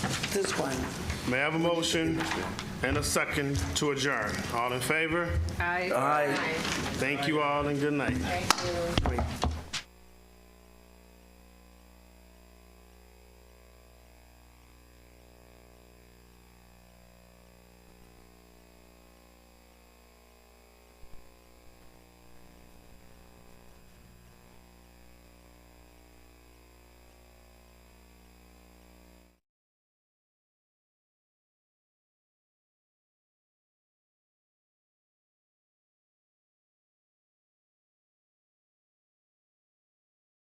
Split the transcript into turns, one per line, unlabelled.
this one.
May I have a motion and a second to adjourn? All in favor?
Aye.
Thank you all and good night.
Wait.